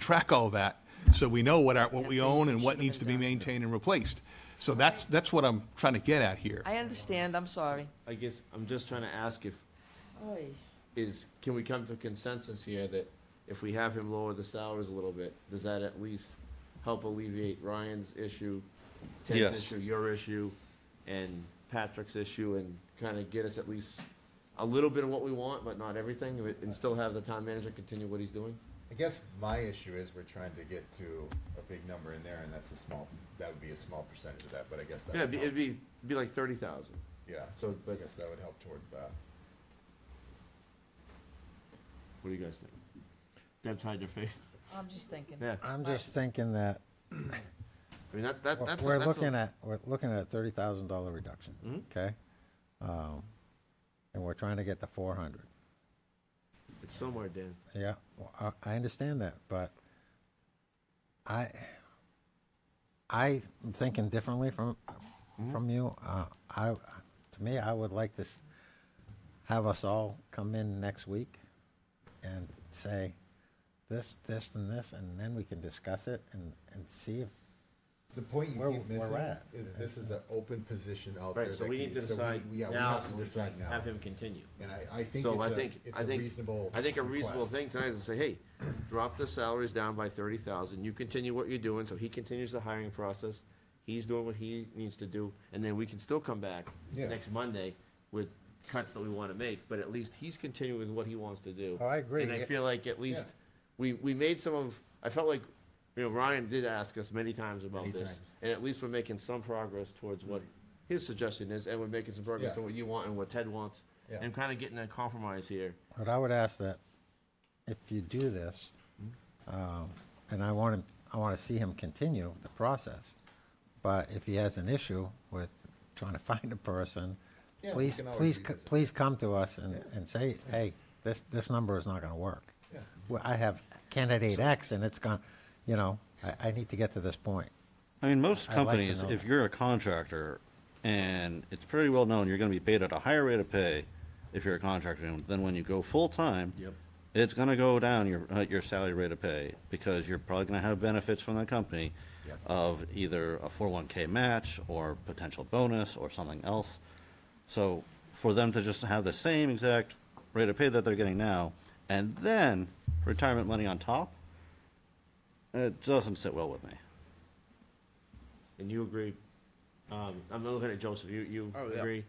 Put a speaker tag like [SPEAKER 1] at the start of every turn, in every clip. [SPEAKER 1] track all that, so we know what our, what we own and what needs to be maintained and replaced. So that's, that's what I'm trying to get at here.
[SPEAKER 2] I understand, I'm sorry.
[SPEAKER 3] I guess I'm just trying to ask if, is, can we come to consensus here that if we have him lower the salaries a little bit, does that at least help alleviate Ryan's issue, Ted's
[SPEAKER 4] Yes.
[SPEAKER 3] issue, your issue, and Patrick's issue, and kind of get us at least a little bit of what we want, but not everything, and- and still have the town manager continue what he's doing?
[SPEAKER 5] I guess my issue is we're trying to get to a big number in there, and that's a small, that would be a small percentage of that, but I guess that
[SPEAKER 3] Yeah, it'd
[SPEAKER 5] would
[SPEAKER 3] be, it'd
[SPEAKER 5] help.
[SPEAKER 3] be, be like thirty thousand.
[SPEAKER 5] Yeah,
[SPEAKER 3] So,
[SPEAKER 5] I
[SPEAKER 3] but,
[SPEAKER 5] guess that would help towards that.
[SPEAKER 3] what do you guys think? Deb's hide your face.
[SPEAKER 2] I'm just thinking.
[SPEAKER 3] Yeah,
[SPEAKER 6] I'm just thinking that
[SPEAKER 3] I mean, that, that, that's. a-
[SPEAKER 6] we're
[SPEAKER 3] that's a-
[SPEAKER 6] looking at, we're looking at a thirty thousand dollar reduction,
[SPEAKER 3] Mm-hmm.
[SPEAKER 6] okay? Um, And we're trying to get to four hundred.
[SPEAKER 3] It's somewhere, Dan.
[SPEAKER 6] Yeah, well, I, I understand that, but I, I'm thinking differently from, from you. Uh, I, to me, I would like this, have us all come in next week and say this, this, and this, and then we can discuss it and, and see if,
[SPEAKER 5] The point
[SPEAKER 6] Where-
[SPEAKER 5] you keep
[SPEAKER 6] where we're
[SPEAKER 5] missing
[SPEAKER 6] at.
[SPEAKER 5] is this is an open position out there.
[SPEAKER 3] Right, so
[SPEAKER 5] that
[SPEAKER 3] we
[SPEAKER 5] can-
[SPEAKER 3] need to
[SPEAKER 5] so we-
[SPEAKER 3] decide
[SPEAKER 5] yeah, we
[SPEAKER 3] now,
[SPEAKER 5] have to decide now.
[SPEAKER 3] have him continue.
[SPEAKER 5] And I, I think
[SPEAKER 3] So I
[SPEAKER 5] it's a,
[SPEAKER 3] think,
[SPEAKER 5] it's
[SPEAKER 3] I
[SPEAKER 5] a
[SPEAKER 3] think,
[SPEAKER 5] reasonable.
[SPEAKER 3] I think a reasonable
[SPEAKER 5] request.
[SPEAKER 3] thing tonight is to say, hey, drop the salaries down by thirty thousand, you continue what you're doing, so he continues the hiring process. He's doing what he needs to do, and then we can still come back
[SPEAKER 5] Yeah.
[SPEAKER 3] next Monday with cuts that we wanna make, but at least he's continuing with what he wants to do.
[SPEAKER 6] Oh, I agree.
[SPEAKER 3] And I
[SPEAKER 6] Yeah.
[SPEAKER 3] feel like at least, we, we made some of, I felt like, you know, Ryan did ask us many times about
[SPEAKER 5] Many
[SPEAKER 3] this,
[SPEAKER 5] times.
[SPEAKER 3] and at least we're making some progress towards what his suggestion is, and we're making some progress
[SPEAKER 5] Yeah.
[SPEAKER 3] to what you want and what Ted wants.
[SPEAKER 5] Yeah.
[SPEAKER 3] And kind of getting a compromise here.
[SPEAKER 6] but I would ask that if you do this, um, and I want him, I want to see him continue the process. But if he has an issue with trying to find a person,
[SPEAKER 5] Yeah, we
[SPEAKER 6] please,
[SPEAKER 5] can always
[SPEAKER 6] please, c-
[SPEAKER 5] revisit.
[SPEAKER 6] please come to us and, and say, hey, this, this number is not going to work.
[SPEAKER 5] Yeah.
[SPEAKER 6] Well, I have candidate X and it's gone, you know, I, I need to get to this point.
[SPEAKER 4] I mean, most
[SPEAKER 6] I'd like to
[SPEAKER 4] companies,
[SPEAKER 6] know
[SPEAKER 4] if
[SPEAKER 6] that.
[SPEAKER 4] you're a contractor, and it's pretty well known, you're going to be paid at a higher rate of pay if you're a contractor than when you go full time.
[SPEAKER 3] Yep.
[SPEAKER 4] It's going to go down your uh, your salary rate of pay because you're probably going to have benefits from that company
[SPEAKER 5] Yep.
[SPEAKER 4] of either a 401k match or potential bonus or something else. So for them to just have the same exact rate of pay that they're getting now and then retirement money on top, it doesn't sit well with me.
[SPEAKER 3] And you agree, um, I'm looking at Joseph, you, you
[SPEAKER 7] Oh, yeah.
[SPEAKER 3] agree?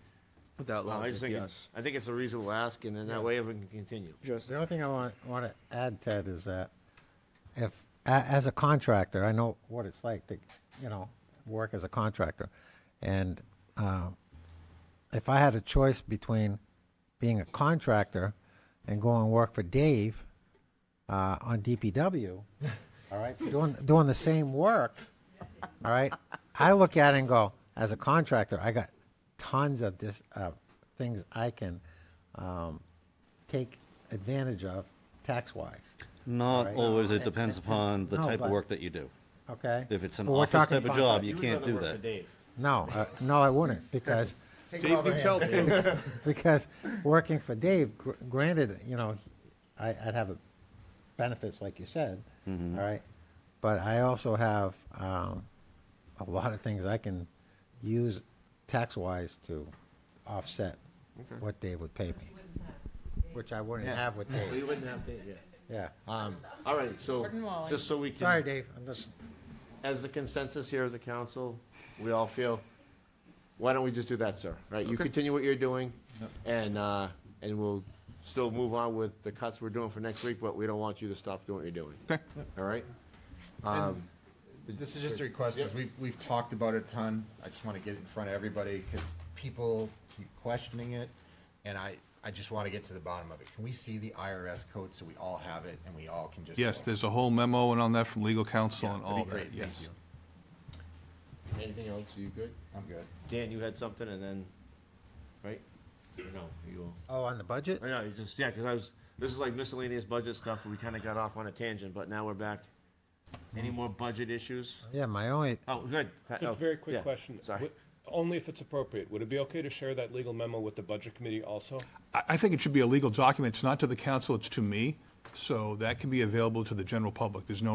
[SPEAKER 7] Without
[SPEAKER 3] Well, I
[SPEAKER 7] logic,
[SPEAKER 3] just think, it-
[SPEAKER 7] yes.
[SPEAKER 3] I think it's a reasonable ask, and then that way everyone can continue.
[SPEAKER 7] Just,
[SPEAKER 6] The only thing I want, want to add, Ted, is that if, a- as a contractor, I know what it's like to, you know, work as a contractor. And uh, if I had a choice between being a contractor and going and work for Dave uh, on DPW, all right, doing, doing the same work, all right, I look at it and go, as a contractor, I got tons of this, uh, things I can um, take advantage of tax-wise.
[SPEAKER 4] Not
[SPEAKER 6] Right.
[SPEAKER 4] always. It
[SPEAKER 6] No,
[SPEAKER 4] depends
[SPEAKER 6] it- it-
[SPEAKER 4] upon the
[SPEAKER 6] no,
[SPEAKER 4] type
[SPEAKER 6] but-
[SPEAKER 4] of work that you do.
[SPEAKER 6] Okay.
[SPEAKER 4] If it's an
[SPEAKER 6] But we're
[SPEAKER 4] office
[SPEAKER 6] talking
[SPEAKER 4] type of
[SPEAKER 6] about
[SPEAKER 4] job,
[SPEAKER 6] that.
[SPEAKER 4] you
[SPEAKER 3] would
[SPEAKER 4] can't
[SPEAKER 3] rather
[SPEAKER 4] do
[SPEAKER 3] work for
[SPEAKER 4] that.
[SPEAKER 3] Dave.
[SPEAKER 6] No, uh, no, I wouldn't because
[SPEAKER 5] Take it
[SPEAKER 1] Dave
[SPEAKER 5] off our
[SPEAKER 1] Patel,
[SPEAKER 5] hands.
[SPEAKER 1] too.
[SPEAKER 6] because working for Dave, gr- granted, you know, I, I'd have a benefits like you said,
[SPEAKER 4] Mm-hmm.
[SPEAKER 6] all right, but I also have um, a lot of things I can use tax wise to offset what Dave would pay me, which I wouldn't
[SPEAKER 3] Yes.
[SPEAKER 6] have with Dave.
[SPEAKER 3] We wouldn't have to, yeah.
[SPEAKER 6] Yeah.
[SPEAKER 3] Um, all right, so,
[SPEAKER 2] Gordon Wally.
[SPEAKER 3] just so we can.
[SPEAKER 6] Sorry, Dave. I'm just.
[SPEAKER 3] as the consensus here of the council, we all feel, why don't we just do that, sir? Right, you continue what you're doing, and, uh, and we'll still move on with the cuts we're doing for next week, but we don't want you to stop doing what you're doing. Okay. All right? Um,
[SPEAKER 5] This is just a request, because we've, we've talked about it a ton. I just want to get it in front of everybody, because people keep questioning it, and I, I just want to get to the bottom of it. Can we see the IRS code so we all have it and we all can just?
[SPEAKER 1] Yes, there's a whole memo and on that from legal counsel
[SPEAKER 5] Yeah,
[SPEAKER 1] and
[SPEAKER 5] that'd
[SPEAKER 1] all
[SPEAKER 5] be
[SPEAKER 1] that,
[SPEAKER 5] great. Thank
[SPEAKER 1] yes.
[SPEAKER 5] you.
[SPEAKER 3] Anything else, you good?
[SPEAKER 5] I'm good.
[SPEAKER 3] Dan, you had something, and then, right? No, you,
[SPEAKER 6] Oh, on the budget.
[SPEAKER 3] I know, you just, yeah, because I was, this is like miscellaneous budget stuff, we kind of got off on a tangent, but now we're back. Any more budget issues?
[SPEAKER 6] Yeah, my only
[SPEAKER 3] Oh, good. Pat-
[SPEAKER 8] Just
[SPEAKER 3] oh,
[SPEAKER 8] a very quick
[SPEAKER 3] yeah,
[SPEAKER 8] question.
[SPEAKER 3] Sorry.
[SPEAKER 8] Would- Only if it's appropriate, would it be okay to share that legal memo with the budget committee also?
[SPEAKER 1] I, I think it should be a legal document. It's not to the council, it's to me. So that can be available to the general public. There's no